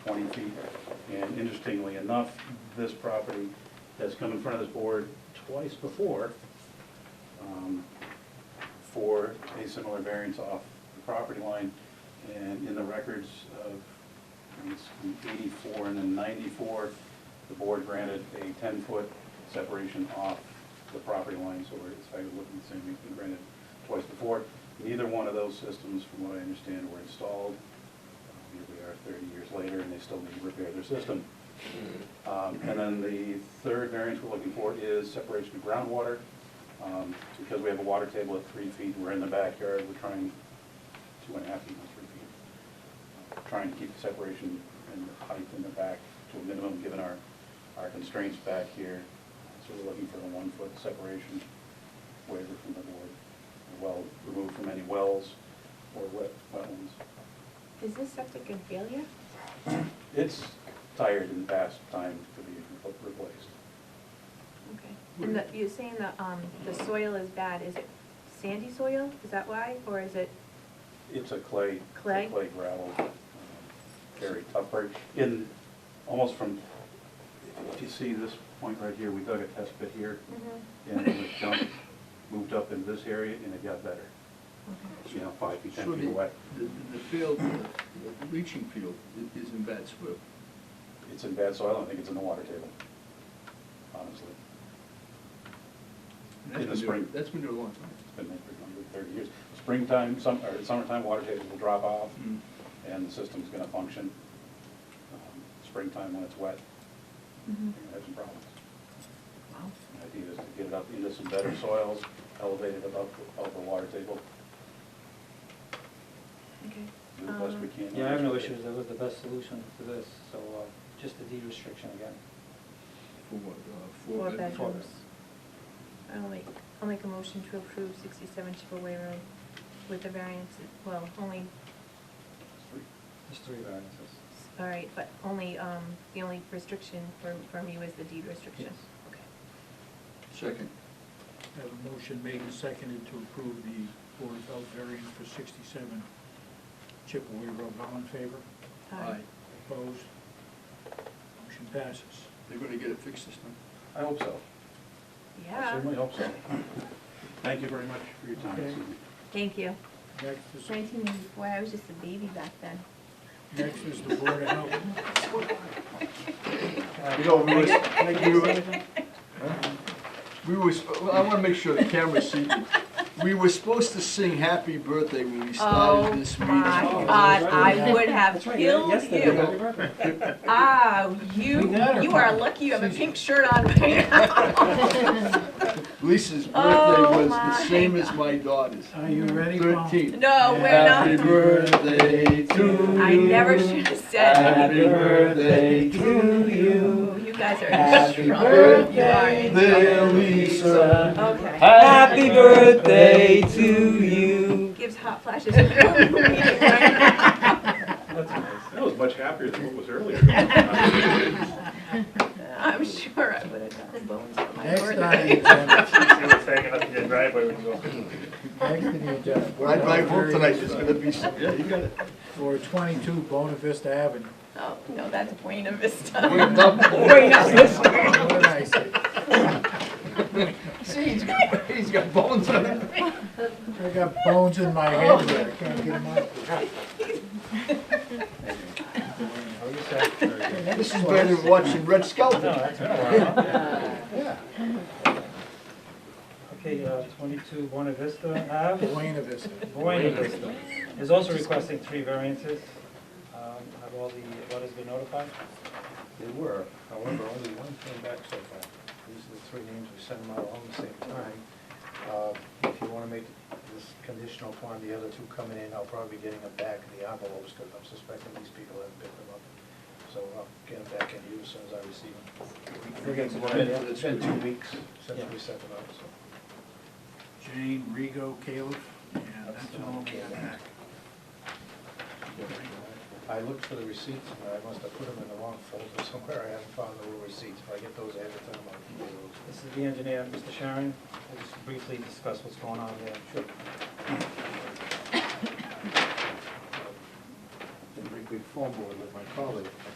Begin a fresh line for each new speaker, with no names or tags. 20 feet. And interestingly enough, this property has come in front of this board twice before um, for a similar variance off the property line. And in the records of, I think it's from 84 and then 94, the board granted a 10-foot separation off the property line, so we're, it's like looking at the same, thing has been granted twice before. Neither one of those systems, from what I understand, were installed. Um, Here we are 30 years later, and they still need to repair their system. Um, And then the third variance we're looking for is separation of groundwater. Um, Because we have a water table at three feet, we're in the backyard, we're trying two and a half feet, not three feet. uh, Trying to keep the separation and the height in the back to a minimum, given our, our constraints back here. So we're looking for a one-foot separation waiver from the board, well, removed from any wells or wet, wetlands.
Is this septic in failure?
It's tired and past time to be re- replaced.
Okay. And the, you're saying the, um, the soil is bad, is it sandy soil, is that why, or is it,
It's a clay.
Clay?
Clay gravel, um, very tough break. In, almost from, if you see this point right here, we dug a test pit here,
Mm-hmm.
and it was dumped, moved up into this area, and it got better. You know, five feet,
So
ten feet
the-
away.
The, the field, the leaching field i- is in bad shape.
It's in bad soil, I think it's in the water table, honestly. In
And that's
the
been there-
spring.
That's been there a long time.
It's been there for 130 years. Springtime, some, or summertime, water tables will drop off.
Hmm.
and the system's gonna function. Um, Springtime when it's wet,
Mhm.
you're gonna have some problems.
Wow.
The idea is to get it up into some better soils, elevate it above, above the water table,
Okay.
do the best we
Um,
can.
Yeah, I have no issues, that was the best solution to this, so uh, just the deed restriction again.
For what, uh,
Four
four bedrooms?
bedrooms. I'll make, I'll make a motion to approve sixty-seven Chipaway Road with the variance, well, only,
There's three variances.
s- all right, but only, um, the only restriction for, from you is the deed restriction?
Yes.
Okay.
Second.
Have a motion made and seconded to approve the Board of Health variance for sixty-seven Chipaway Road. All in favor?
Aye.
Opposed? Motion passes.
They're gonna get it fixed this time.
I hope so. I
Yeah,
Certainly hope so. Thank you very much for your time. this
Okay.
evening.
thank you.
Next is,
Nineteen ninety-four, I was just a baby back then.
next is the Board of Health.
You know, we was,
Thank
we
you.
were, we was, well, I wanna make sure the camera's see me. We were supposed to sing happy birthday when we
Oh,
started this meeting. Oh,
my God, I would have
That's right, yeah,
killed
yesterday, happy
you.
birthday.
Ah, you,
We got her.
you are lucky you have a pink shirt on right now.
Lisa's birthday
Oh,
was the
my
same as my daughter's,
Are you ready? Paul?
thirteen.
No, we're
Happy
not.
birthday to you.
I never should have said.
Happy birthday to you.
You guys are
Happy
strong.
birthday,
You are.
dear Lisa.
Okay.
Happy birthday to you.
Gives hot flashes. in the room. Right
That was much happier than what was earlier.
now. I'm sure I would have gotten bones for my
Next on the
birthday.
agenda,
Well,
next on the agenda. Board
My
of
drive
Health
home tonight
variance
is gonna be, yeah, you got it.
For twenty-two Bona Vista Avenue.
Oh, no, that's Buena Vista.
We're double.
What did I say?
See, he's got- he's got bones on him.
I got bones in my head here, I can't get them out.
Oh,
This is better than watching Red Skelton.
Yeah,
Okay, uh, 22 Buena Vista Ave,
Buena Vista.
Buena Vista, is also requesting three variances. Um, Have all the abutters been notified?
They were, however, only one came back so far. These are the three names, we sent them out all at the same time. Uh, If you want to make this conditional upon the other two coming in, I'll probably be getting them back in the envelopes, because I'm suspecting these people haven't picked them up. So I'll get them back into you as soon as I receive them,
We'll get
It's
to one,
been-
yeah.
It's been two weeks.
since we sent them out, so.
Jane, Rego, Caleb, and that's all we have back.
I looked for the receipts, and I must have put them in the wrong folder somewhere, I haven't found the little receipts. If I get those ahead of time, I'll give you those.
This is the engineer, Mr. Sharon. We'll just briefly discuss what's going on there. Sure.
In a big phone board with my colleague,